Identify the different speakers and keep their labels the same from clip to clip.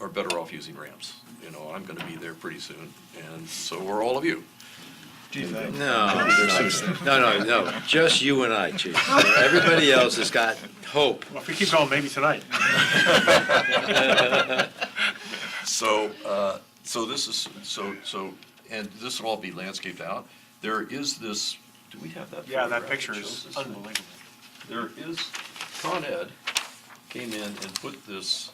Speaker 1: are better off using ramps. You know, I'm going to be there pretty soon, and so are all of you.
Speaker 2: No, no, no, no, just you and I, chief. Everybody else has got hope.
Speaker 3: Well, if we keep going, maybe tonight.
Speaker 1: So, uh, so this is, so, so, and this will all be landscaped out. There is this, do we have that?
Speaker 3: Yeah,
Speaker 1: photograph
Speaker 3: that picture
Speaker 1: shows
Speaker 3: is
Speaker 1: this thing?
Speaker 3: unbelievable.
Speaker 1: There is, Con Ed came in and put this,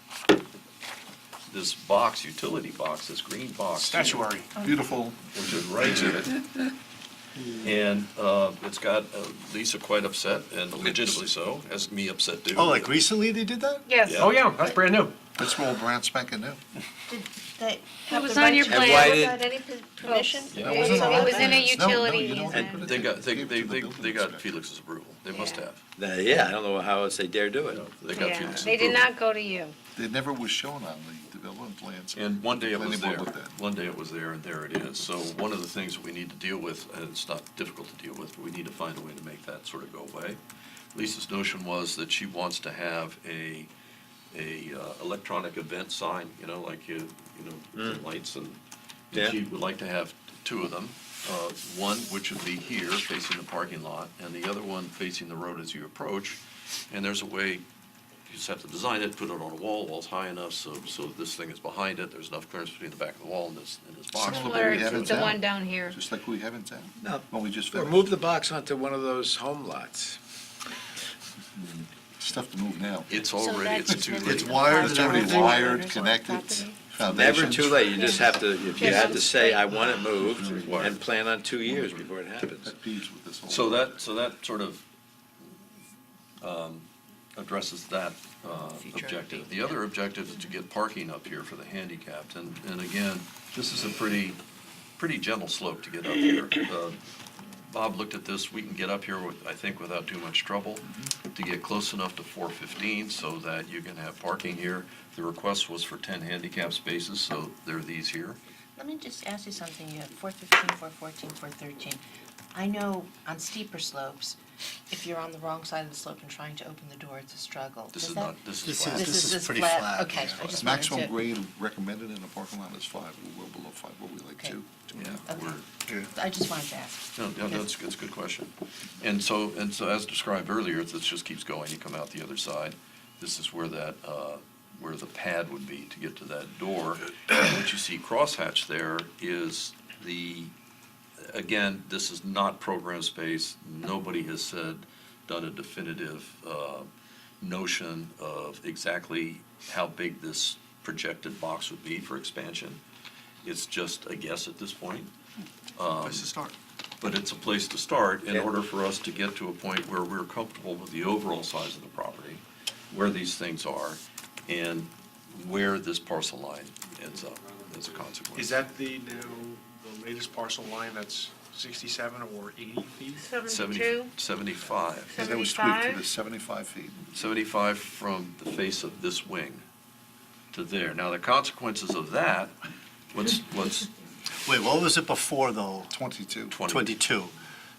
Speaker 1: this box, utility box, this green box. here.
Speaker 3: Statuary.
Speaker 4: Beautiful.
Speaker 1: which is right to it. And uh, it's got uh, Lisa quite upset, and legitimately so, as me upset too.
Speaker 4: Oh, like recently they did that?
Speaker 5: Yes.
Speaker 1: Yeah.
Speaker 3: Oh, yeah, that's brand new.
Speaker 4: That's all brand spanking new.
Speaker 6: That
Speaker 5: It was on your
Speaker 2: And why
Speaker 5: plan.
Speaker 2: did- Oh.
Speaker 6: Without any p- permission?
Speaker 1: Yeah,
Speaker 5: It was in a
Speaker 4: No, no,
Speaker 5: utility
Speaker 4: you don't put
Speaker 5: easement.
Speaker 4: it
Speaker 1: They got, they,
Speaker 4: Give it
Speaker 1: they,
Speaker 4: to the
Speaker 1: they
Speaker 4: building
Speaker 1: they got
Speaker 4: inspector.
Speaker 1: Felix's approval, they must
Speaker 5: Yeah.
Speaker 1: have.
Speaker 2: Uh, Yeah, I don't know how else they dare do it.
Speaker 1: They got
Speaker 5: Yeah,
Speaker 1: Felix's approval.
Speaker 5: They did not go to you.
Speaker 4: They never was shown on the development plans.
Speaker 1: And one day it
Speaker 4: Planning
Speaker 1: was
Speaker 4: board
Speaker 1: there,
Speaker 4: looked at it.
Speaker 1: one day it was there, and there it is. So one of the things that we need to deal with, and it's not difficult to deal with, but we need to find a way to make that sort of go away. Lisa's notion was that she wants to have a, a uh, electronic event sign, you know, like you, you know, with the lights and,
Speaker 2: Yeah.
Speaker 1: and she would like to have two of them. Uh, One which would be here facing the parking lot, and the other one facing the road as you approach. And there's a way you just have to design it, put it on a wall, wall's high enough, so, so this thing is behind it, there's enough clearance between the back of the wall and this, and this box.
Speaker 4: Similar.
Speaker 5: Or
Speaker 4: we have it
Speaker 5: the
Speaker 4: now.
Speaker 5: one down here.
Speaker 4: Just like we have in town.
Speaker 2: No.
Speaker 4: When we just
Speaker 2: Or
Speaker 4: finished.
Speaker 2: move the box onto one of those home lots.
Speaker 4: Stuff to move now.
Speaker 1: It's
Speaker 6: So
Speaker 1: already,
Speaker 6: that's
Speaker 1: it's too
Speaker 6: never
Speaker 1: late.
Speaker 4: It's wired, it's already
Speaker 6: Everything.
Speaker 4: wired, connected,
Speaker 6: Property.
Speaker 4: foundations.
Speaker 2: Never too late, you just have to, if you have to say, I want it moved,
Speaker 1: Required.
Speaker 2: and plan on two years before it happens.
Speaker 4: That peeves with this whole.
Speaker 1: So that, so that sort of um, addresses that uh,
Speaker 5: Future.
Speaker 1: objective. The other objective is to get parking up here for the handicapped, and, and again, this is a pretty, pretty gentle slope to get up here. Uh, Bob looked at this, we can get up here with, I think, without too much trouble, to get close enough to four fifteen so that you can have parking here. The request was for ten handicap spaces, so there are these here.
Speaker 7: Let me just ask you something, you have four fifteen, four fourteen, four thirteen. I know on steeper slopes, if you're on the wrong side of the slope and trying to open the door, it's a struggle.
Speaker 1: This
Speaker 7: Does
Speaker 1: is
Speaker 7: that-
Speaker 1: not, this is
Speaker 4: This
Speaker 1: flat.
Speaker 4: this is
Speaker 7: this
Speaker 4: pretty flat,
Speaker 7: Okay, I
Speaker 4: yeah.
Speaker 7: just wanted to.
Speaker 4: Maximum grade recommended in a parking lot is five, we're well below five, what we like
Speaker 7: Okay. Uh,
Speaker 4: two.
Speaker 1: Yeah,
Speaker 7: Okay.
Speaker 1: we're-
Speaker 7: I just wanted to ask.
Speaker 1: No, no, that's, that's a good question. And so, and so as described earlier, this just keeps going, you come out the other side. This is where that, uh, where the pad would be to get to that door. And What you see crosshatch there is the, again, this is not program space. Nobody has said, done a definitive uh, notion of exactly how big this projected box would be for expansion. It's just a guess at this point. Um,
Speaker 4: Place to start.
Speaker 1: But it's a place to start in
Speaker 2: Yeah.
Speaker 1: order for us to get to a point where we're comfortable with the overall size of the property, where these things are, and where this parcel line ends up as a consequence.
Speaker 3: Is that the new, the latest parcel line that's 67 or 80 feet?
Speaker 1: Seventy-
Speaker 5: Seventy-two,
Speaker 1: 75.
Speaker 4: That was tweaked to the
Speaker 5: seventy-five.
Speaker 4: seventy-five feet.
Speaker 1: 75 from the face of this wing to there. Now, the consequences of that, what's, what's,
Speaker 8: Wait, what was it before though?
Speaker 4: Twenty-two.
Speaker 1: Twenty.
Speaker 8: 22.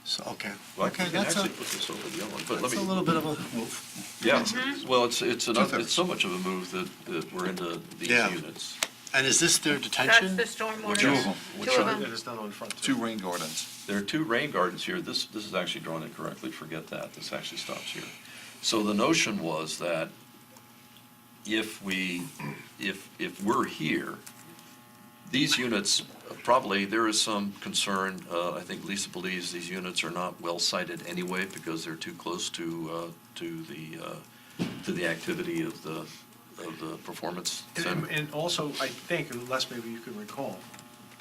Speaker 8: So, okay.
Speaker 1: well, I
Speaker 8: Okay,
Speaker 1: can
Speaker 8: that's a,
Speaker 1: actually put this over the other one, but let
Speaker 8: that's
Speaker 1: me.
Speaker 8: a little bit of a move.
Speaker 1: Yeah,
Speaker 5: Mm-hmm.
Speaker 1: well, it's, it's, an-
Speaker 4: Two-thirds.
Speaker 1: it's so much of a move that, that we're into these
Speaker 8: Yeah.
Speaker 1: units.
Speaker 8: And is this their
Speaker 5: That's
Speaker 8: detention?
Speaker 5: the stormwater.
Speaker 1: Two
Speaker 4: of 'em.
Speaker 1: Which
Speaker 5: Two
Speaker 1: are-
Speaker 5: of
Speaker 3: It
Speaker 5: them.
Speaker 3: is done on the front. too.
Speaker 4: Two rain gardens.
Speaker 1: There are two rain gardens here. This, this is actually drawn incorrectly. Forget that. This actually stops here. So the notion was that if we, if, if we're here, these units, probably, there is some concern, uh, I think Lisa believes these units are not well sited anyway because they're too close to, uh, to the, uh, to the activity of the, of the performance
Speaker 3: And-
Speaker 1: center.
Speaker 3: And also, I think, unless maybe you can recall,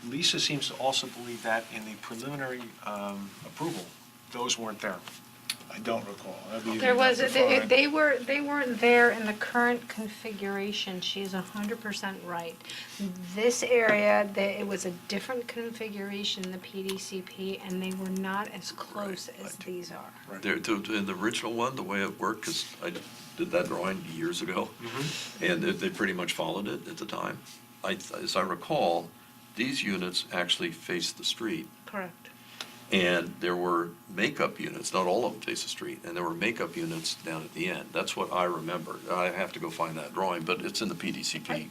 Speaker 3: Lisa seems to also believe that in the preliminary um, approval, those weren't there.
Speaker 4: I don't recall.
Speaker 5: There was, they they were, they weren't there in the current configuration. She's a hundred percent right. This area, the- it was a different configuration, in the PDCP, and they were not as close as these are.
Speaker 1: There, to, to- in the original one, the way it worked, because I did that drawing years ago, and they, they pretty much followed it at the time. I, as I recall, these units actually faced the street,
Speaker 5: Correct.
Speaker 1: and there were makeup units, not all of them faced the street, and there were makeup units down at the end. That's what I remember. I have to go find that drawing, but it's in the PDCP